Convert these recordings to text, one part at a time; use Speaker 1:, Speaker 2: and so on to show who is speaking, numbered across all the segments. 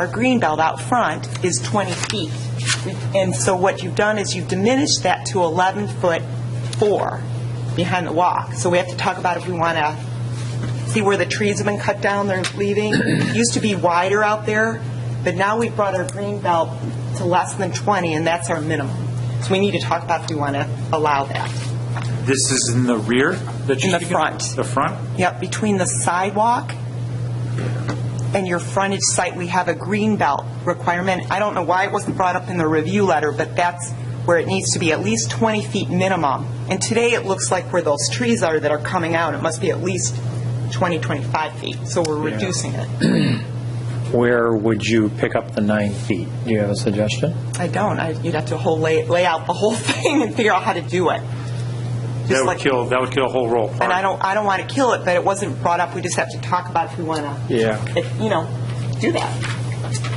Speaker 1: Our green belt out front is 20 feet. And so what you've done is you've diminished that to 11 foot 4 behind the walk. So we have to talk about if we want to see where the trees have been cut down, they're leaving. It Used to be wider out there, but now we've brought our green belt to less than 20, and that's our minimum. So we need to talk about if we want to allow that.
Speaker 2: This is in the rear that
Speaker 1: In the
Speaker 2: you're speaking of?
Speaker 1: front.
Speaker 2: The front?
Speaker 1: Yep, between the sidewalk and your frontage site, we have a green belt requirement. I don't know why it wasn't brought up in the review letter, but that's where it needs to be, at least 20 feet minimum. And today, it looks like where those trees are that are coming out, it must be at least 20, 25 feet, so we're reducing it.
Speaker 3: Where would you pick up the nine feet? Do you have a suggestion?
Speaker 1: I don't, I- you'd have to whole lay, lay out the whole thing and figure out how to do it.
Speaker 2: That
Speaker 1: Just
Speaker 2: would
Speaker 1: like-
Speaker 2: kill, that would kill a whole row of
Speaker 1: And I
Speaker 2: parking.
Speaker 1: don't, I don't want to kill it, but it wasn't brought up, we just have to talk about if we want to.
Speaker 3: Yeah.
Speaker 1: You know, do that.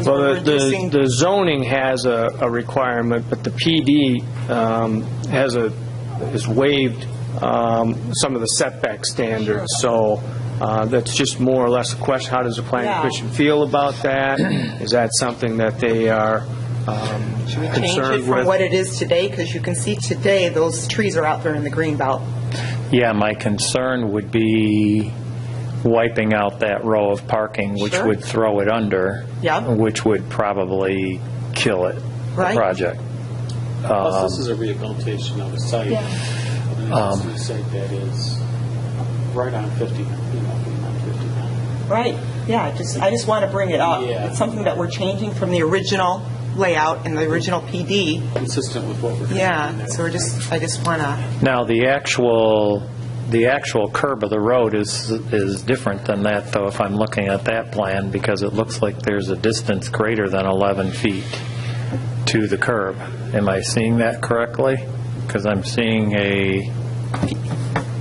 Speaker 4: Well, the- the
Speaker 1: Reducing-
Speaker 4: the zoning has a a requirement, but the PD um, has a, has waived um, some of the setback standards, so uh, that's just more or less a question, how does the planning
Speaker 1: Yeah.
Speaker 4: commission feel about that? Is that something that they are um,
Speaker 1: change it
Speaker 4: concerned
Speaker 1: from what it
Speaker 4: with?
Speaker 1: is today, because you can see today, those trees are out there in the green belt.
Speaker 3: Yeah, my concern would be wiping out that row of parking, which
Speaker 1: Sure.
Speaker 3: would throw it under.
Speaker 1: Yeah.
Speaker 3: Which would probably kill it. the
Speaker 1: Right.
Speaker 3: Project.
Speaker 5: Plus, this is a rehabilitation of a site. I mean, This is a site that is right on 50, you know, being on 59.
Speaker 1: Right, yeah, just, I just want to bring it up.
Speaker 5: Yeah.
Speaker 1: It's something that we're changing from the original layout and the original PD.
Speaker 5: Consistent with what we're doing.
Speaker 1: Yeah, so we're just, I just want to,
Speaker 3: Now, the actual, the actual curb of the road is, is different than that, though, if I'm looking at that plan, because it looks like there's a distance greater than 11 feet to the curb. Am I seeing that correctly? Because I'm seeing a,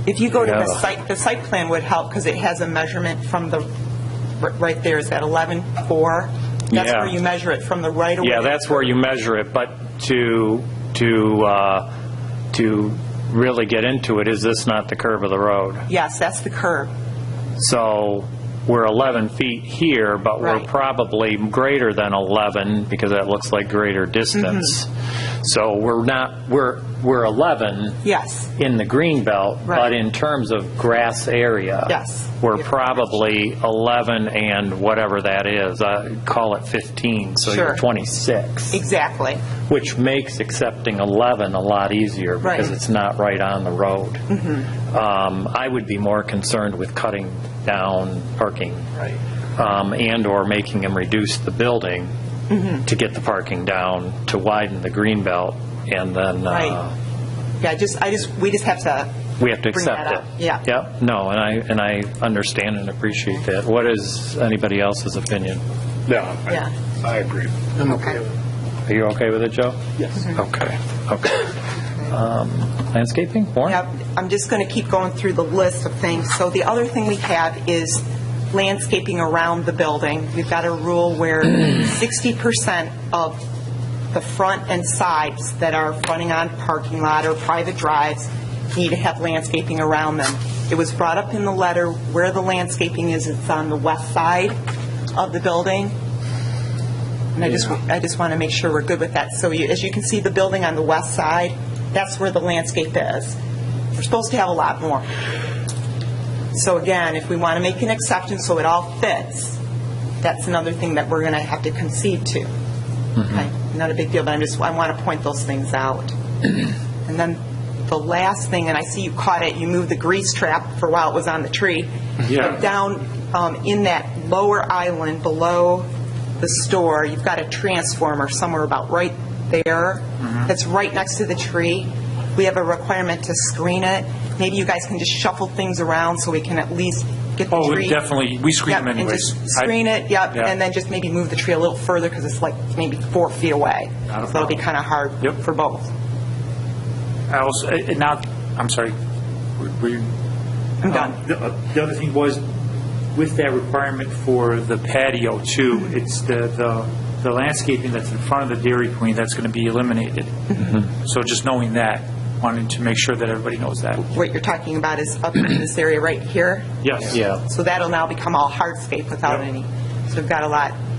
Speaker 1: if you go to the
Speaker 3: Yeah.
Speaker 1: site, the site plan would help, because it has a measurement from the, r- right there, is that 11.4? That's
Speaker 3: Yeah.
Speaker 1: where you measure it, from the right away.
Speaker 3: yeah, that's where you measure it, but to, to, uh, to really get into it, is this not the curb of the road?
Speaker 1: Yes, that's the curb.
Speaker 3: So we're 11 feet here, but we're
Speaker 1: Right.
Speaker 3: probably greater than 11, because that looks like greater distance.
Speaker 1: Mm-hmm.
Speaker 3: So we're not, we're, we're 11
Speaker 1: Yes,
Speaker 3: in the green belt,
Speaker 1: Right.
Speaker 3: but in terms of grass area.
Speaker 1: Yes.
Speaker 3: We're probably 11 and whatever that is, I call it 15, so
Speaker 1: Sure.
Speaker 3: you're 26.
Speaker 1: exactly.
Speaker 3: Which makes accepting 11 a lot easier because
Speaker 1: Right. Mm-hmm.
Speaker 3: it's not right on the road. Um, I would be more concerned with cutting down parking. Um, And/or making them reduce the building
Speaker 1: Mm-hmm.
Speaker 3: to get the parking down, to widen the green belt, and then uh,
Speaker 1: Right. Yeah, just, I just, we just have to.
Speaker 3: we have to
Speaker 1: bring that
Speaker 3: accept it.
Speaker 1: up. Yeah.
Speaker 3: Yep, no, and I, and I understand and appreciate that. What is anybody else's opinion?
Speaker 1: Yeah.
Speaker 6: I agree.
Speaker 3: Are you okay with it, Joe?
Speaker 5: Yes.
Speaker 3: Okay, okay. Um, Landscaping, Warren?
Speaker 1: Yep, I'm just going to keep going through the list of things. So the other thing we have is landscaping around the building. We've got a rule where 60% of the front and sides that are fronting on parking lot or private drives need to have landscaping around them. It was brought up in the letter where the landscaping is, it's on the west side of the building. And I just, I just want to make sure we're good with that. So you, as you can see, the building on the west side, that's where the landscape is. We're supposed to have a lot more. So again, if we want to make an exception so it all fits, that's another thing that we're going to have to concede to.
Speaker 2: Mm-hmm.
Speaker 1: Okay, Not a big deal, but I'm just, I want to point those things out. And then the last thing, and I see you caught it, you moved the grease trap for a while it was on the tree.
Speaker 2: Yeah.
Speaker 1: But down um, in that lower island below the store, you've got a transformer somewhere about right there,
Speaker 2: Mm-hmm.
Speaker 1: that's right next to the tree. We have a requirement to screen it. Maybe you guys can just shuffle things around so we can at least get the
Speaker 2: Oh, we
Speaker 1: tree.
Speaker 2: definitely- we screen
Speaker 1: Yep,
Speaker 2: them
Speaker 1: and just
Speaker 2: anyways. I-
Speaker 1: Screen it, yep,
Speaker 2: Yeah.
Speaker 1: and then just maybe move the tree a little further because it's like maybe four feet away.
Speaker 2: Not a
Speaker 1: So that'll be
Speaker 2: problem.
Speaker 1: kind of hard
Speaker 2: Yep.
Speaker 1: for both.
Speaker 2: I also, eh, eh, now, I'm sorry. We're
Speaker 1: I'm done.
Speaker 2: The uh, the other thing was, with that requirement for the patio too, it's the, the the landscaping that's in front of the Dairy Queen that's going to be eliminated.
Speaker 3: Mm-hmm.
Speaker 2: So just knowing that, wanting to make sure that everybody knows that.
Speaker 1: What you're talking about is up in this area right here.
Speaker 2: Yes.
Speaker 3: Yeah.
Speaker 1: So that'll now become all hardscape without
Speaker 2: Yep.
Speaker 1: any, so we've got a lot